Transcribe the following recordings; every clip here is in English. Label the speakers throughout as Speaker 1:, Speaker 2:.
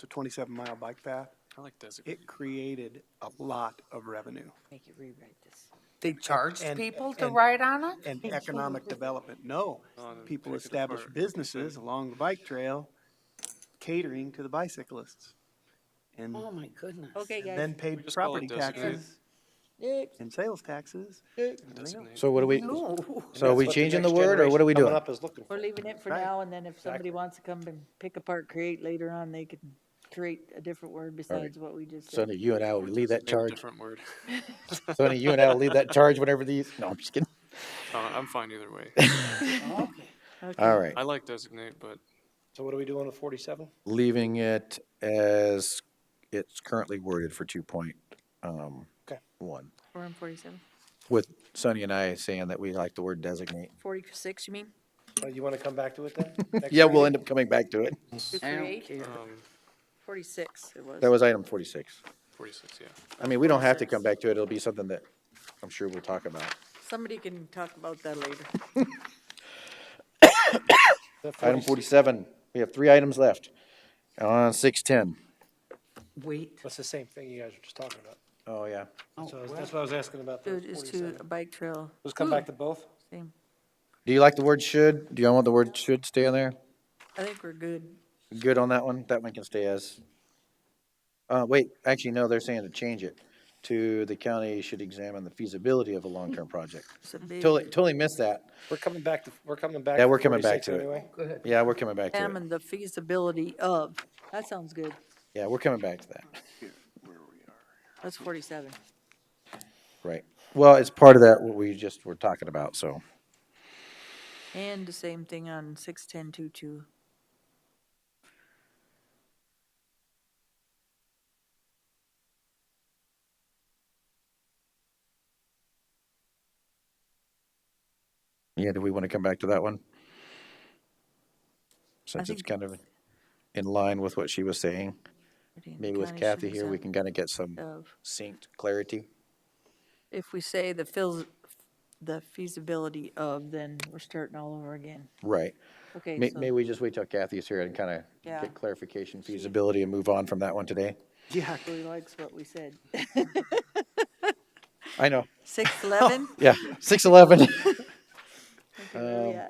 Speaker 1: the twenty-seven mile bike path,
Speaker 2: I like designated.
Speaker 1: it created a lot of revenue.
Speaker 3: Make you rewrite this.
Speaker 1: They
Speaker 4: Charged
Speaker 1: and-
Speaker 4: people to
Speaker 1: and-
Speaker 4: ride on it?
Speaker 1: And economic development, no.
Speaker 2: Oh, and then
Speaker 1: People
Speaker 2: take it
Speaker 1: established
Speaker 2: apart.
Speaker 1: businesses along the bike trail catering to the bicyclists. And
Speaker 3: Oh, my goodness.
Speaker 4: Okay,
Speaker 1: and then
Speaker 4: guys.
Speaker 1: paid
Speaker 2: just call
Speaker 1: property
Speaker 2: it
Speaker 1: taxes
Speaker 3: Next,
Speaker 1: and sales taxes.
Speaker 3: next.
Speaker 2: Designated.
Speaker 5: So what are we,
Speaker 3: No,
Speaker 5: so are we changing the word or what are we doing?
Speaker 3: we're leaving it for
Speaker 1: Right.
Speaker 3: now, and then if somebody
Speaker 1: Exactly.
Speaker 3: wants to come and pick apart create later on, they can create a different word besides what we just said.
Speaker 5: Sonny, you and I will leave that
Speaker 2: Maybe a
Speaker 5: charge.
Speaker 2: Different word.
Speaker 5: Sonny, you and I will leave that charge whenever these, no, I'm just kidding.
Speaker 2: Uh, I'm fine either way.
Speaker 5: All right,
Speaker 2: I like designate, but
Speaker 6: So what are we doing with forty-seven?
Speaker 5: leaving it as it's currently worded for two point, um,
Speaker 6: Okay.
Speaker 5: one.
Speaker 4: We're on forty-seven.
Speaker 5: With Sonny and I saying that we like the word designate.
Speaker 4: Forty-six, you mean?
Speaker 6: Uh, You want to come back to it then? Next
Speaker 5: Yeah, we'll
Speaker 6: meeting?
Speaker 5: end up coming back to it.
Speaker 4: To create?
Speaker 2: um,
Speaker 4: Forty-six it was.
Speaker 5: That was item forty-six.
Speaker 2: 46, yeah.
Speaker 5: I mean, we don't have to come back to it. It'll be something that I'm sure we'll talk about.
Speaker 4: Somebody can talk about that later.
Speaker 6: The 40
Speaker 5: Item forty-seven, we have three items left on six-ten.
Speaker 3: Wait.
Speaker 6: That's the same thing you guys were just talking about.
Speaker 5: Oh, yeah.
Speaker 6: So that's what I was asking about the
Speaker 4: It is to a
Speaker 6: forty-seven.
Speaker 4: bike trail.
Speaker 6: Let's come back to both.
Speaker 4: Same.
Speaker 5: Do you like the word should? Do y'all want the word should stay on there?
Speaker 4: I think we're good.
Speaker 5: Good on that one? That one can stay as. Uh, wait, actually, no, they're saying to change it to the county should examine the feasibility of a long-term project.
Speaker 4: It's a big
Speaker 5: Totally, totally missed that.
Speaker 6: We're coming back to, we're coming back.
Speaker 5: Yeah,
Speaker 6: to
Speaker 5: we're coming back
Speaker 6: 46
Speaker 5: to it.
Speaker 6: anyway.
Speaker 5: Yeah, we're coming back to it.
Speaker 4: Examine the feasibility of, that sounds good.
Speaker 5: Yeah, we're coming back to that.
Speaker 4: That's forty-seven.
Speaker 5: Right. Well, it's part of that, what we just were talking about, so.
Speaker 4: And the same thing on six-ten-two-two.
Speaker 5: Yeah, do we want to come back to that one? Since it's
Speaker 4: think
Speaker 5: kind of in line with what she was saying, maybe with Kathy here, we can kind of get some
Speaker 4: Of.
Speaker 5: synced clarity.
Speaker 4: If we say the feels, the feasibility of, then we're starting all over again.
Speaker 5: Right.
Speaker 4: Okay,
Speaker 5: May,
Speaker 4: so-
Speaker 5: maybe we just wait till Kathy's here and kind of
Speaker 4: Yeah.
Speaker 5: get clarification feasibility and move on from that one today.
Speaker 1: Yeah,
Speaker 4: He likes what we said.
Speaker 5: I know,
Speaker 4: Six eleven?
Speaker 5: yeah, six eleven, Um,
Speaker 4: Yeah.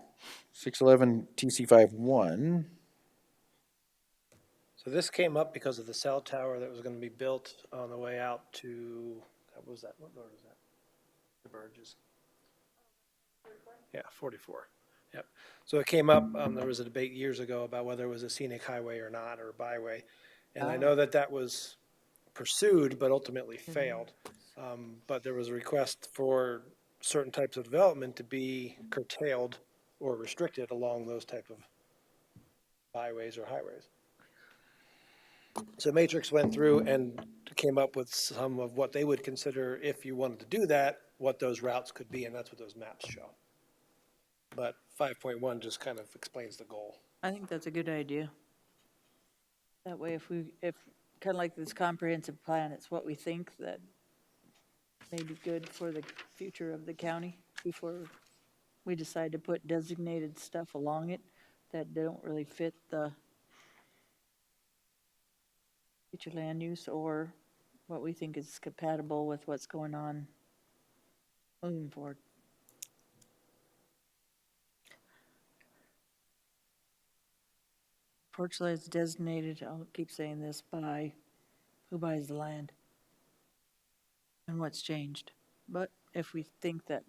Speaker 5: six eleven TC five one,
Speaker 6: So this came up because of the cell tower that was going to be built on the way out to, what was that, what road was that? The Burgess. Yeah, forty-four, yep. So it came up, um, there was a debate years ago about whether it was a scenic highway or not, or byway. And I know that that was pursued, but ultimately failed. Um, but there was a request for certain types of development to be curtailed or restricted along those type of byways or highways. So Matrix went through and came up with some of what they would consider, if you wanted to do that, what those routes could be, and that's what those maps show. But five point one just kind of explains the goal.
Speaker 4: I think that's a good idea. That way if we, if, kind of like this comprehensive plan, it's what we think that may be good for the future of the county before we decide to put designated stuff along it that don't really fit the future land use or what we think is compatible with what's going on moving forward. Portugal is designated, I'll keep saying this, by who buys the land and what's changed. But if we think that,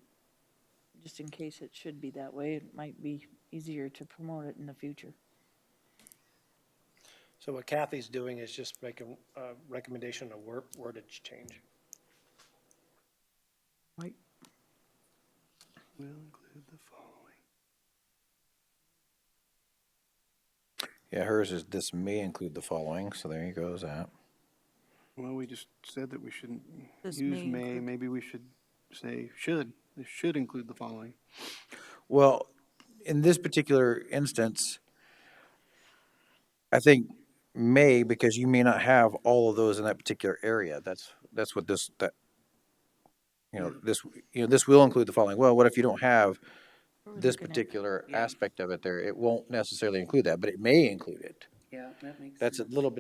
Speaker 4: just in case it should be that way, it might be easier to promote it in the future.
Speaker 6: So what Kathy's doing is just making a recommendation of word, wordage change.
Speaker 4: Right.
Speaker 1: will include the following.
Speaker 5: yeah, hers is, this may include the following, so there you goes that.
Speaker 1: Well, we just said that we shouldn't
Speaker 4: This
Speaker 1: use
Speaker 4: may
Speaker 1: may,
Speaker 4: include-
Speaker 1: maybe we should say should, this should include the following.
Speaker 5: Well, in this particular instance, I think may, because you may not have all of those in that particular area. That's, that's what this, that, you know, this, you know, this will include the following. Well, what if you don't have this particular aspect of it there? It won't necessarily include that, but it may include it.
Speaker 7: Yeah, that makes
Speaker 5: That's a little bit